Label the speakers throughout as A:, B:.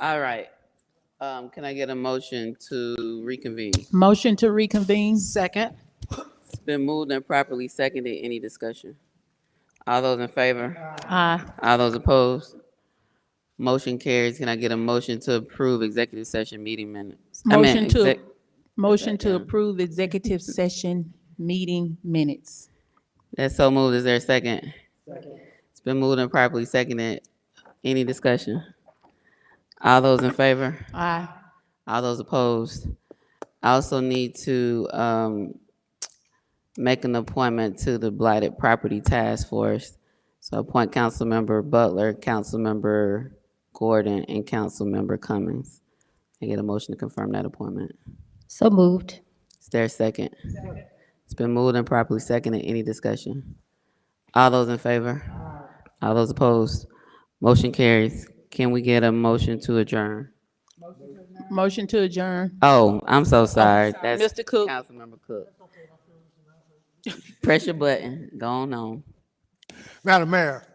A: All right. Um, can I get a motion to reconvene?
B: Motion to reconvene?
A: Second. It's been moved and properly seconded. Any discussion? All those in favor?
B: Aye.
A: All those opposed? Motion carries. Can I get a motion to approve executive session meeting minutes? I mean,
B: Motion to,
A: exec-
B: motion to approve executive session meeting minutes.
A: That's so moved. Is there a second? It's been moved and properly seconded. Any discussion? All those in favor?
B: Aye.
A: All those opposed? I also need to um, make an appointment to the Blighted Property Task Force. So appoint Councilmember Butler, Councilmember Gordon, and Councilmember Cummings. I get a motion to confirm that appointment.
C: So moved.
A: Is there a second? It's been moved and properly seconded. Any discussion? All those in favor? All those opposed? Motion carries. Can we get a motion to adjourn?
B: Motion to adjourn.
A: Oh, I'm so sorry. That's
B: Mr. Cook.
A: Councilmember Cook. Press your button. Go on on.
D: Madam Mayor,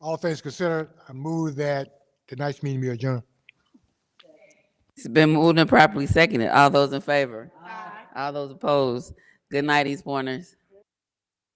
D: all things considered, I move that tonight's meeting be adjourned.
A: It's been moved and properly seconded. All those in favor? All those opposed? Good night, East Pointers.